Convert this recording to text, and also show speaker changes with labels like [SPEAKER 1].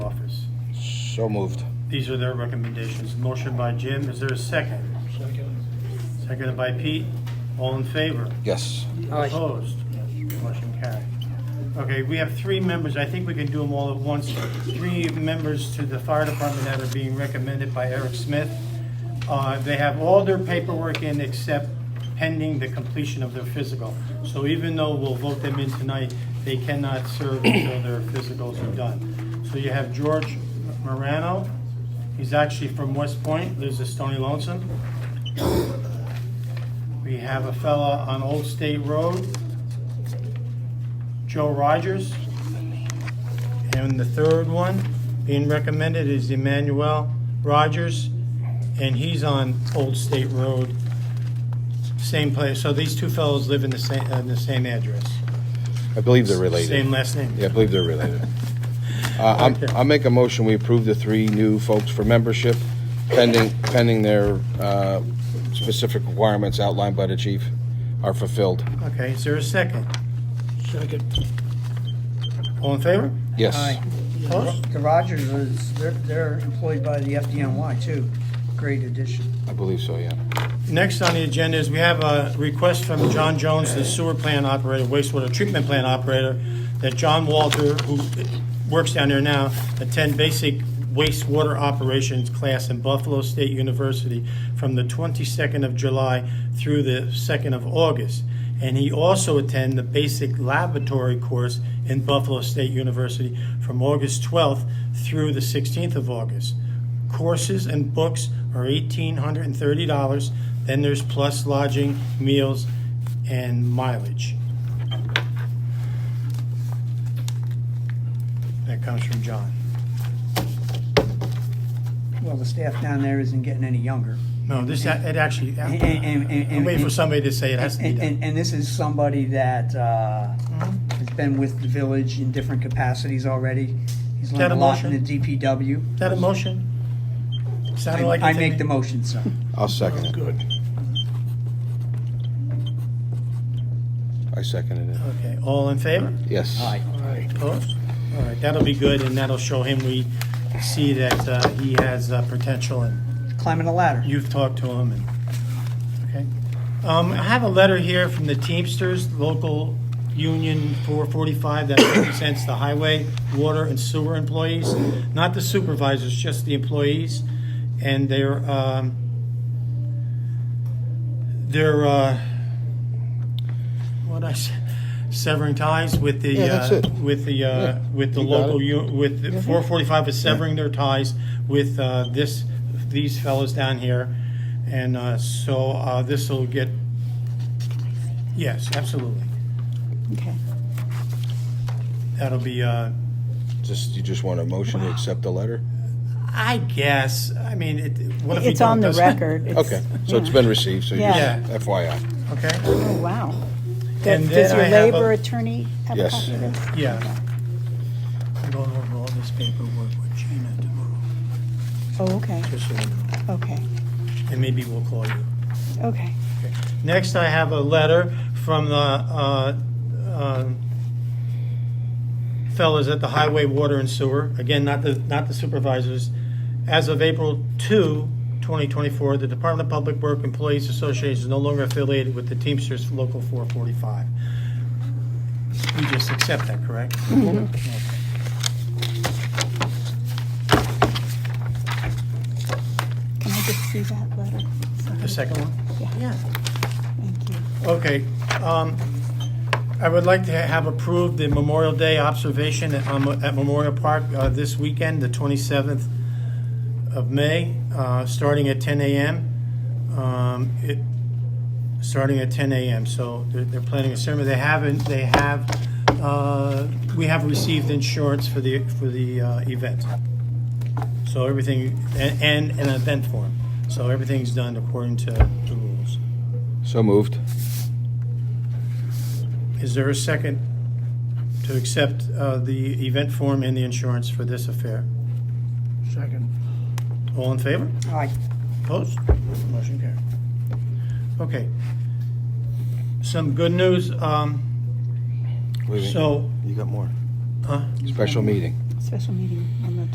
[SPEAKER 1] So moved.
[SPEAKER 2] These are their recommendations. Motion by Jim, is there a second? Seconded by Pete, all in favor?
[SPEAKER 1] Yes.
[SPEAKER 3] Aye.
[SPEAKER 2] Opposed? Motion carried. Okay, we have three members, I think we can do them all at once. Three members to the fire department that are being recommended by Eric Smith. Uh, They have all their paperwork in except pending the completion of their physical. So even though we'll vote them in tonight, they cannot serve until their physicals are done. So you have George Morano, he's actually from West Point, lives at Stony Lonesome. We have a fella on Old State Road, Joe Rogers. And the third one being recommended is Emmanuel Rogers, and he's on Old State Road, same place. So these two fellows live in the same, in the same address,
[SPEAKER 1] I believe they're related.
[SPEAKER 2] same last name.
[SPEAKER 1] Yeah, I believe they're related. Uh, I'm-
[SPEAKER 2] Okay.
[SPEAKER 1] I'll make a motion, we approve the three new folks for membership pending, pending their uh, specific requirements outlined by the chief are fulfilled.
[SPEAKER 2] Okay, is there a second?
[SPEAKER 3] Second.
[SPEAKER 2] All in favor?
[SPEAKER 1] Yes.
[SPEAKER 3] Aye.
[SPEAKER 2] Opposed?
[SPEAKER 4] The Rogers is, they're, they're employed by the FDNY too. Great addition.
[SPEAKER 1] I believe so, yeah.
[SPEAKER 2] Next on the agenda is we have a request from John Jones, the sewer plant operator, wastewater treatment plant operator, that John Walter, who works down there now, attend basic wastewater operations class in Buffalo State University from the 22nd of July through the 2nd of August. And he also attend the basic laboratory course in Buffalo State University from August 12th through the 16th of August courses and books are eighteen hundred and thirty dollars. Then there's plus lodging, meals, and mileage. That comes from John.
[SPEAKER 4] Well, the staff down there isn't getting any younger.
[SPEAKER 2] No, this, it actually,
[SPEAKER 4] And- and- and-
[SPEAKER 2] I'm waiting for somebody to say it has to be
[SPEAKER 4] And,
[SPEAKER 2] done. Mm-hmm.
[SPEAKER 4] and, and this is somebody that, uh, has been with the village in different capacities already. He's
[SPEAKER 2] Got
[SPEAKER 4] learned
[SPEAKER 2] a
[SPEAKER 4] a lot in
[SPEAKER 2] motion?
[SPEAKER 4] the DPW.
[SPEAKER 2] Is that a motion? Sounded
[SPEAKER 4] I
[SPEAKER 2] like. it
[SPEAKER 4] I
[SPEAKER 2] to
[SPEAKER 4] make
[SPEAKER 2] me.
[SPEAKER 4] the motion, sir.
[SPEAKER 1] I'll second it.
[SPEAKER 3] Good.
[SPEAKER 1] I seconded it.
[SPEAKER 2] Okay, all in favor?
[SPEAKER 1] Yes.
[SPEAKER 4] Aye.
[SPEAKER 3] Aye.
[SPEAKER 2] Opposed? All right, that'll be good, and that'll show him we see that uh, he has uh, potential and
[SPEAKER 4] Climbing a ladder.
[SPEAKER 2] You've talked to them, and, okay. Um, I have a letter here from the Teamsters, local union 445 that represents the highway, water, and sewer employees, not the supervisors, just the employees. And they're, um, they're, uh, what I s- severing ties with the,
[SPEAKER 1] Yeah, that's
[SPEAKER 2] uh,
[SPEAKER 1] it.
[SPEAKER 2] with the, uh, with the
[SPEAKER 1] you got it.
[SPEAKER 2] local union you- with the 445 is severing their ties with uh, this, these fellows down here. And uh, so uh, this will get, yes, absolutely.
[SPEAKER 5] Okay.
[SPEAKER 2] That'll be, uh,
[SPEAKER 1] Just, you just want a motion to accept the letter?
[SPEAKER 2] I guess, I mean, it, what if we
[SPEAKER 5] It's on
[SPEAKER 2] don't-
[SPEAKER 5] the record. It's-
[SPEAKER 1] Okay, so it's been received, so you
[SPEAKER 5] Yeah.
[SPEAKER 1] just FYI.
[SPEAKER 2] Okay,
[SPEAKER 5] Oh, wow.
[SPEAKER 2] And
[SPEAKER 5] Does
[SPEAKER 2] then
[SPEAKER 5] does your
[SPEAKER 2] I have a-
[SPEAKER 5] labor attorney have a
[SPEAKER 1] Yes.
[SPEAKER 5] copy of this?
[SPEAKER 2] yeah. I'm going over all this paperwork with Gina tomorrow,
[SPEAKER 5] Oh, okay,
[SPEAKER 2] just so you know.
[SPEAKER 5] okay,
[SPEAKER 2] And maybe we'll call you.
[SPEAKER 5] okay.
[SPEAKER 2] Next, I have a letter from the uh, um, fellas at the Highway Water and Sewer, again, not the, not the supervisors. As of April 2, 2024, the Department of Public Work Employees Association is no longer affiliated with the Teamsters Local 445. We just accept that, correct? Okay.
[SPEAKER 5] Can I just see that letter?
[SPEAKER 2] The second one?
[SPEAKER 5] Yeah.
[SPEAKER 2] Yeah.
[SPEAKER 5] Thank you.
[SPEAKER 2] Okay, um, I would like to have approved the Memorial Day observation at um, at Memorial Park uh, this weekend, the 27th of May, uh, starting at 10 a.m. Um, It Starting at 10 a.m., so they're- they're planning a ceremony. They haven't, they have, uh, we have received insurance for the, for the uh, event. So everything, and and an event form. So everything's done according to the rules.
[SPEAKER 1] So moved.
[SPEAKER 2] Is there a second to accept uh, the event form and the insurance for this affair?
[SPEAKER 3] Second.
[SPEAKER 2] All in favor?
[SPEAKER 4] Aye.
[SPEAKER 2] Opposed? Motion carried. Okay. Some good news, um,
[SPEAKER 1] Wait, wait.
[SPEAKER 2] so,
[SPEAKER 1] You got more.
[SPEAKER 2] huh?
[SPEAKER 1] Special meeting.
[SPEAKER 5] Special meeting on the